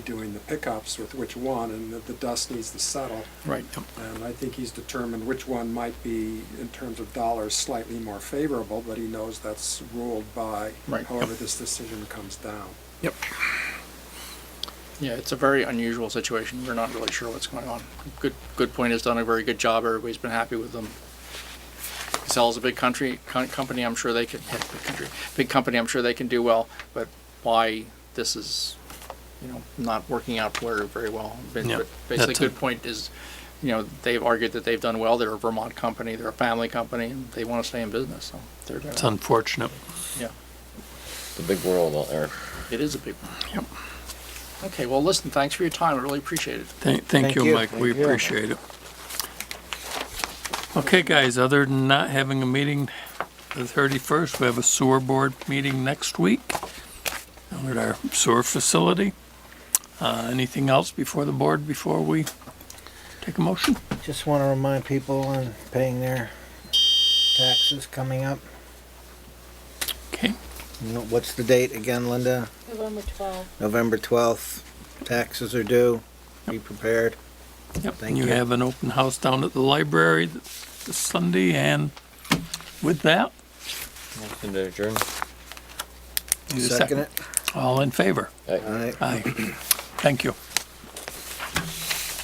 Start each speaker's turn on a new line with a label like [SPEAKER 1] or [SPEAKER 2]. [SPEAKER 1] doing the pickups with which one, and that the dust needs to settle.
[SPEAKER 2] Right, yep.
[SPEAKER 1] And I think he's determined which one might be, in terms of dollars, slightly more favorable, but he knows that's ruled by
[SPEAKER 2] Right, yep.
[SPEAKER 1] however this decision comes down.
[SPEAKER 2] yep. Yeah, it's a very unusual situation. We're not really sure what's going on. Good, good point has done a very good job. Everybody's been happy with them. Casella's a big country, con- company, I'm sure they could, yeah, big country, big company, I'm sure they can do well, but why this is, you know, not working out very, very well. But
[SPEAKER 3] Yeah,
[SPEAKER 2] but basically,
[SPEAKER 3] that's a-
[SPEAKER 2] good point is, you know, they've argued that they've done well. They're a Vermont company, they're a family company, and they want to stay in business, so they're
[SPEAKER 3] It's
[SPEAKER 2] gonna,
[SPEAKER 3] unfortunate.
[SPEAKER 2] yeah.
[SPEAKER 4] The big world out there.
[SPEAKER 2] It is a big one. Yep. Okay, well, listen, thanks for your time. I really appreciate it.
[SPEAKER 3] Thank, thank you, Mike. We appreciate it. Okay, guys, other than not having a meeting the 31st, we have a sewer board meeting next week down at our sewer facility. Uh, anything else before the board, before we take a motion?
[SPEAKER 5] Just want to remind people on paying their taxes coming up.
[SPEAKER 3] Okay,
[SPEAKER 5] No- What's the date again, Linda?
[SPEAKER 6] November 12th.
[SPEAKER 5] November 12th. Taxes are due. Be prepared.
[SPEAKER 3] yep.
[SPEAKER 5] Thank
[SPEAKER 3] You
[SPEAKER 5] you.
[SPEAKER 3] have an open house down at the library this Sunday, and with that,
[SPEAKER 4] Motion to adjourn.
[SPEAKER 3] need a
[SPEAKER 5] Second it.
[SPEAKER 3] All in favor?
[SPEAKER 5] All right.
[SPEAKER 3] Aye. Thank you.